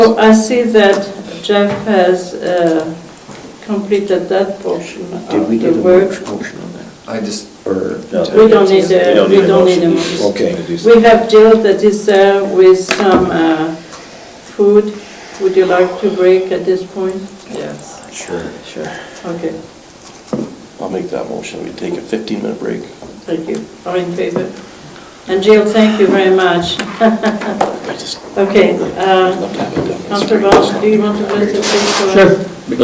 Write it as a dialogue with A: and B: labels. A: So Oh, I see that Jeff has uh, completed that portion
B: Did we
A: of
B: get
A: the
B: a
A: work.
B: mo- motion on that?
C: I just,
B: Or,
A: We don't need a, we don't need a
B: motion.
A: motion.
B: Okay.
A: We have Jill that is there with some uh, food. Would you like to break at this point?
C: yes.
D: Sure, sure.
A: Okay,
D: I'll make that motion. We take a 15-minute break.
A: thank you. All in favor? And Jill, thank you very much. uh,
D: I just
A: Okay,
D: love to have it done.
A: Councilor Barnes, do you want to raise a thing for us?
E: Sure.